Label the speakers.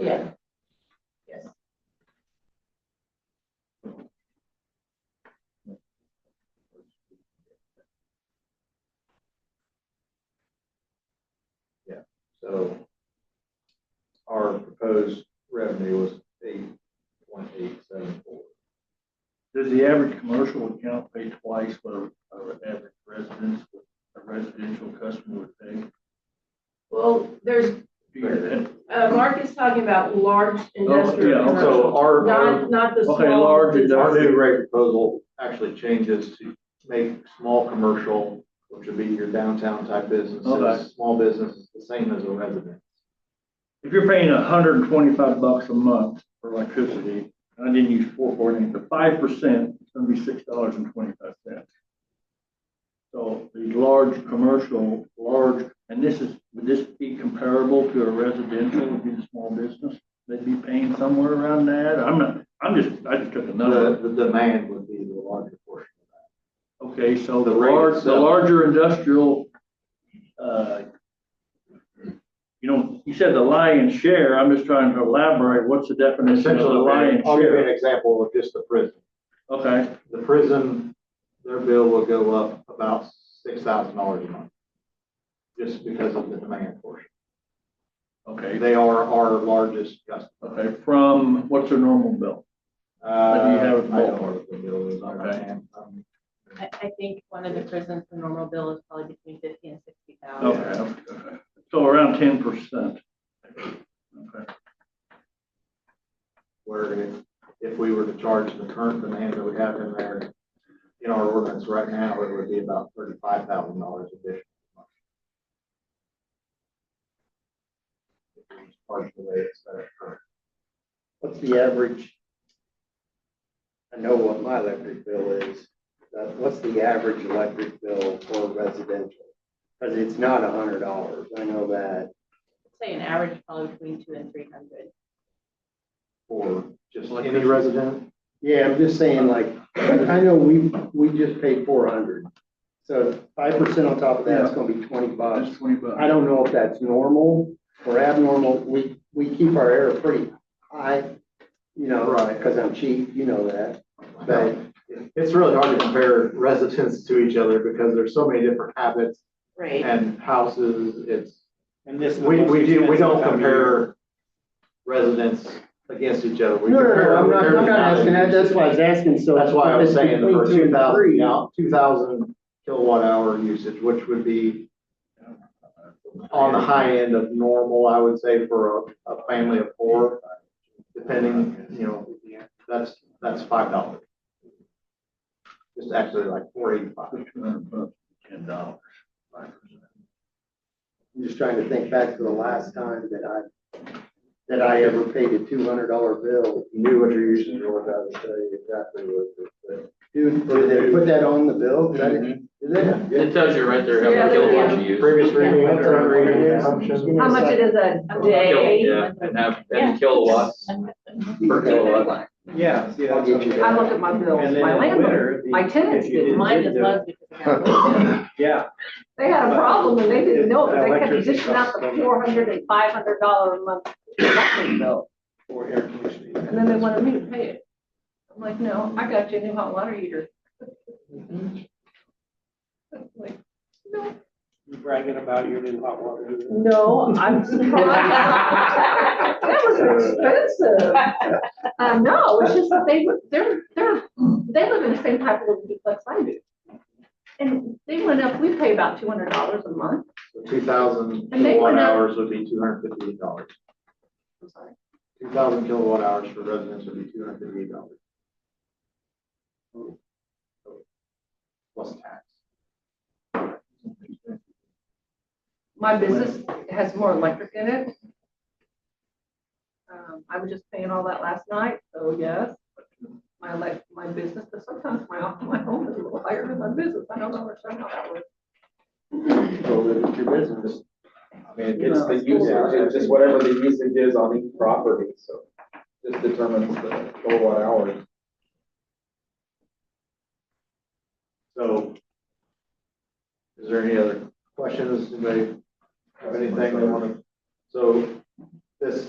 Speaker 1: Yeah.
Speaker 2: Yes.
Speaker 3: Yeah, so our proposed revenue was eight point eight seven four.
Speaker 4: Does the average commercial account pay twice what a- our average residence, a residential customer would pay?
Speaker 2: Well, there's,
Speaker 4: Do you get that?
Speaker 2: uh, Mark is talking about large industrial
Speaker 4: Oh, yeah,
Speaker 2: commercial,
Speaker 3: So our, our,
Speaker 2: not, not the small.
Speaker 4: Okay, large
Speaker 3: our
Speaker 2: business.
Speaker 3: new rate proposal actually changes to make small commercial, which would be your downtown type
Speaker 4: Okay.
Speaker 3: businesses, small businesses, the same as a resident.
Speaker 4: If you're paying hundred and twenty-five bucks a month for electricity, and I didn't use four forty, the five percent, it's gonna be six dollars and twenty-five cents. So the large commercial, large, and this is, would this be comparable to a residential, would be the small business? They'd be paying somewhere around that, I'm not, I'm just, I just took a number.
Speaker 3: The, the demand would be the larger portion of that.
Speaker 4: Okay, so the
Speaker 3: The rate
Speaker 4: large, the
Speaker 3: itself.
Speaker 4: larger industrial, uh, you know, you said the lion's share, I'm just trying to elaborate, what's the definition of the lion's
Speaker 3: I'll give you an
Speaker 4: share?
Speaker 3: example of just the prison.
Speaker 4: Okay,
Speaker 3: The prison, their bill will go up about six thousand dollars a month. Just because of the demand portion.
Speaker 4: okay,
Speaker 3: They are our largest customer.
Speaker 4: okay, from, what's their normal bill? do you have it
Speaker 3: Uh, I don't know what the bill is on
Speaker 4: Okay.
Speaker 3: hand. Um,
Speaker 1: I, I think one of the prisons, the normal bill is probably between fifty and sixty
Speaker 4: Okay,
Speaker 1: thousand.
Speaker 4: okay, okay. so around ten percent. Okay,
Speaker 3: Where if, if we were to charge the current demand that we have in there, in our ordinance right now, it would be about thirty-five thousand dollars additional. a month. If we Charge the way it's set up currently.
Speaker 5: What's the average? I know what my electric bill is, but what's the average electric bill for residential? Because it's not a hundred dollars, I know that.
Speaker 4: Oh.
Speaker 1: Say an average probably between two and three hundred.
Speaker 3: for just any resident.
Speaker 5: Yeah, I'm just saying like, I know we, we just paid four hundred. So five percent on top of that is gonna be twenty bucks.
Speaker 4: that's twenty bucks.
Speaker 5: I don't know if that's normal or abnormal. We, we keep our air pretty high, you know,
Speaker 3: Right.
Speaker 5: because I'm cheap, you know that.
Speaker 3: But it's really hard to compare residents to each other because there's so many different habits
Speaker 1: Right.
Speaker 3: and houses. It's,
Speaker 5: And this.
Speaker 3: we, we do, we don't compare residents against each other. We
Speaker 5: No, no,
Speaker 3: compare
Speaker 5: no, I'm not, I'm
Speaker 3: everything
Speaker 5: not
Speaker 3: out of
Speaker 5: asking that,
Speaker 3: each.
Speaker 5: that's why I was asking, so.
Speaker 3: That's why I was saying the
Speaker 5: between
Speaker 3: first
Speaker 5: two
Speaker 3: two
Speaker 5: and
Speaker 3: thousand,
Speaker 5: three,
Speaker 3: now, two thousand kilowatt hour usage, which would be on the high end of normal, I would say, for a, a family of four, depending, you know, that's, that's five dollars. It's actually like four eighty-five.
Speaker 4: Two hundred bucks, ten dollars, five percent.
Speaker 5: I'm just trying to think back to the last time that I, that I ever paid a two hundred dollar bill.
Speaker 3: Knew what your usage was, I would tell you exactly what it was.
Speaker 5: Dude, did they put that on the bill? Is that it? Is that?
Speaker 6: It tells you right there how
Speaker 1: Yeah,
Speaker 6: many
Speaker 1: there you
Speaker 6: kilowatts you use.
Speaker 3: Previous reading,
Speaker 5: Yeah.
Speaker 3: current reading, assumption.
Speaker 1: How much it is a a day?
Speaker 6: Yeah, and have, and kilowatts per kilowatt.
Speaker 5: Yeah, yeah. I'll get you that.
Speaker 7: I look at my bills, my landlord, my tenants did.
Speaker 1: Mine is less because of that.
Speaker 5: Yeah.
Speaker 7: They had a problem and they didn't know it, they kept
Speaker 5: Electricity
Speaker 7: dishing out the
Speaker 5: costs.
Speaker 7: four hundred and five hundred dollar a month electric bill.
Speaker 5: For air conditioning.
Speaker 7: And then they wanted me to pay it. I'm like, no, I got you a new hot water heater. Like,
Speaker 5: You bragging about your new hot water heater?
Speaker 7: No, I'm surprised. That was expensive. Uh, no, it's just that they, were- they're, they're, they live in the same type of little duplex I do. And they went up, we pay about two hundred dollars a month.
Speaker 3: Two thousand
Speaker 7: And they
Speaker 3: kilowatt
Speaker 7: went up-
Speaker 3: hours would be two hundred fifty-eight dollars.
Speaker 7: I'm sorry.
Speaker 3: Two thousand kilowatt hours for residents would be two hundred fifty-eight dollars. Plus tax.
Speaker 7: My business has more electric in it. Um, I was just paying all that last night, so yes. My elec my business, but sometimes my, my home is a little higher than my business. I don't understand how that works.
Speaker 5: it's your business.
Speaker 8: I mean, it's the usage, it's just whatever the usage is on each property, so just determines the kilowatt hours.
Speaker 3: So. Is there any other questions? Anybody have anything they want to? So this